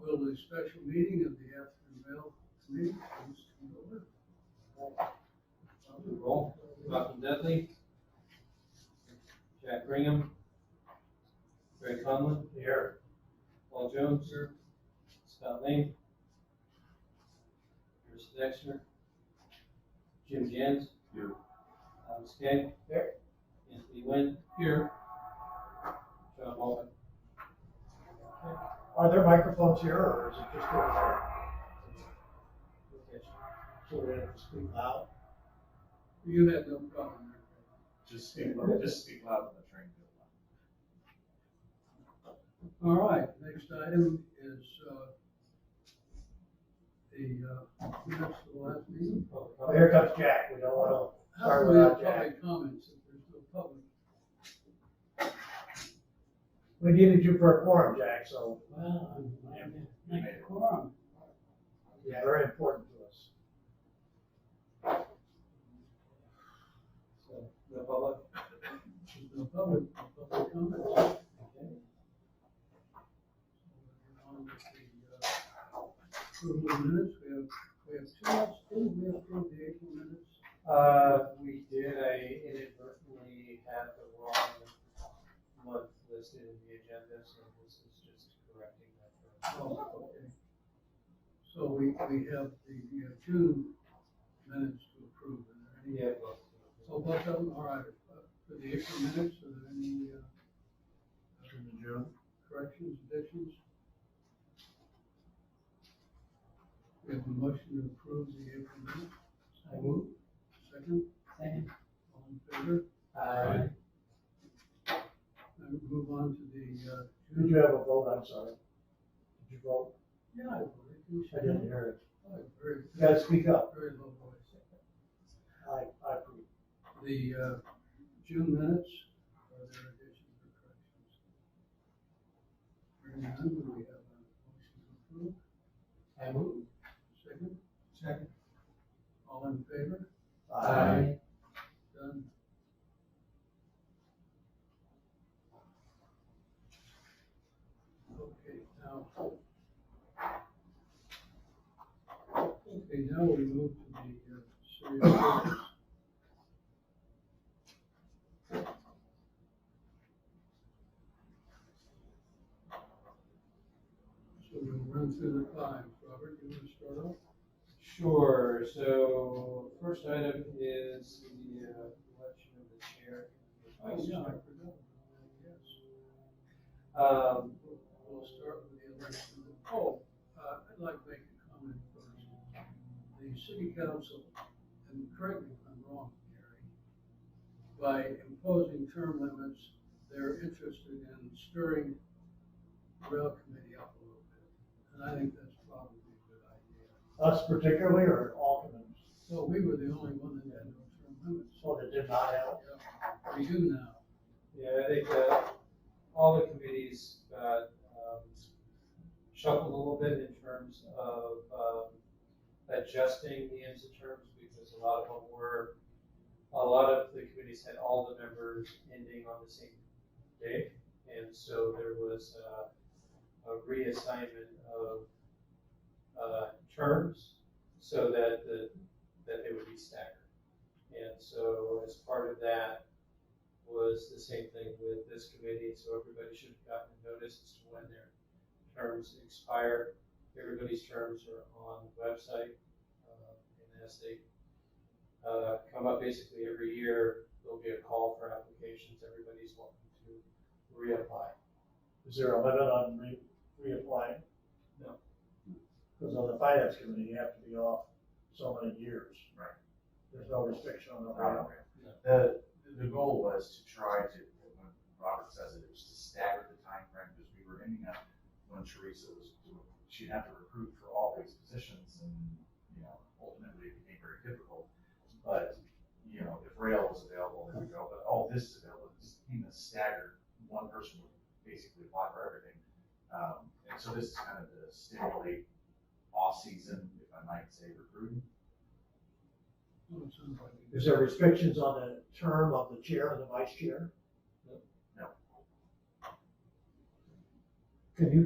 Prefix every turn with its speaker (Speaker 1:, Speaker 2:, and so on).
Speaker 1: Will the special meeting of the Atherton Committee please come to order?
Speaker 2: Roll. Malcolm Dudley. Jack Brigham. Greg Conlon. Here. Paul Jones. Here. Scott Lane. Chris Dexter. Jim Jens.
Speaker 3: Here.
Speaker 2: Thomas Gay. Here. Anthony Wynn. Here. John Holman.
Speaker 4: Are there microphones here, or is it just over there? So we have to speak loud?
Speaker 1: You had no problem there.
Speaker 3: Just speak, just speak loud when the train goes by.
Speaker 1: All right, next item is, uh, the, uh, minutes of the last meeting.
Speaker 4: Well, here comes Jack, we don't want to
Speaker 1: How
Speaker 4: start
Speaker 1: do we have
Speaker 4: without Jack.
Speaker 1: public comments if there's no public?
Speaker 4: We needed you for a quorum, Jack, so
Speaker 1: Well, I'm,
Speaker 4: I'm-
Speaker 1: I'm a quorum.
Speaker 4: you're very important to us.
Speaker 2: So, No public?
Speaker 1: There's no public, no public comments.
Speaker 2: Okay.
Speaker 1: On with the, uh, approval of minutes, we have, we have two, minutes. didn't we approve the April minutes?
Speaker 2: Uh, we did, I inadvertently had the wrong month listed in the agenda, so this is just correcting that.
Speaker 1: Oh, okay. So we, we have the, we have two minutes to approve, are there any?
Speaker 2: Yeah, both.
Speaker 1: Oh, both of them, all right, Uh, for the April minutes, are there any, uh, corrections, additions? We have a motion to approve the April minutes,
Speaker 2: I move.
Speaker 1: second,
Speaker 2: Second.
Speaker 1: all in favor?
Speaker 2: Uh, Aye.
Speaker 1: Now we move on to the, uh,
Speaker 4: Did
Speaker 1: June.
Speaker 4: you have a vote, I'm sorry? Did you vote?
Speaker 1: Yeah, I believe you
Speaker 4: I didn't hear it.
Speaker 1: Oh, Very,
Speaker 4: You gotta speak up.
Speaker 1: very low voice.
Speaker 4: I, I approve.
Speaker 1: the uh, June minutes, are there additions or corrections? Hearing none, do we have a motion to approve?
Speaker 2: I move.
Speaker 1: Second,
Speaker 2: Second.
Speaker 1: all in favor?
Speaker 2: Aye.
Speaker 1: Done. Okay, now. oh. Okay, now we move to the uh, city officials. So we'll run through the five. Robert, you want to start off?
Speaker 2: Sure, so first item is the uh, election of the chair. and the vice
Speaker 1: I
Speaker 2: chair.
Speaker 1: forgot. Yes.
Speaker 2: Um,
Speaker 1: We'll start with the election. Oh, uh, I'd like to make a comment first. The city council, and correct me if I'm wrong, Gary, by imposing term limits, they're interested in stirring the rail committee up a little bit. And I think that's probably a good idea.
Speaker 4: Uh, Us particularly, or all committees?
Speaker 1: Well, we were the only one that had no term limits.
Speaker 4: So that did not help.
Speaker 1: Yeah, We do now.
Speaker 2: Yeah, I think uh all the committees got um, shuffled a little bit in terms of um, adjusting the ends of terms because a lot of them were, a lot of the committees had all the members ending on the same day. And so there was uh, a reassignment of uh, terms so that the, that they would be staggered. And so as part of that, was the same thing with this committee, so everybody should have gotten notice as to when their terms expire. Everybody's terms are on the website, uh, and as they, uh, come up basically every year, there'll be a call for applications, everybody's welcome to reapply.
Speaker 4: Is there a limit on re, reapplying?
Speaker 2: No.
Speaker 4: Because on the finance committee, you have to be off so many years. Right. There's no restriction on the.
Speaker 3: Robert.
Speaker 2: Yeah.
Speaker 3: The, the goal was to try to, when Robert says it, it was to stagger the time frame because we were ending up when Teresa was, doing- she'd have to recruit for all these positions and, you know, ultimately it became very difficult. But, you know, if rail was available, there we go, but oh, this is available, this became a staggered, one person would basically apply for everything. Um, and so this is kind of to stimulate off-season, if I might say, recruiting.
Speaker 1: Oh, it sounds like we did.
Speaker 4: Is there restrictions on the term of the chair and the vice chair?
Speaker 2: No.
Speaker 4: Can you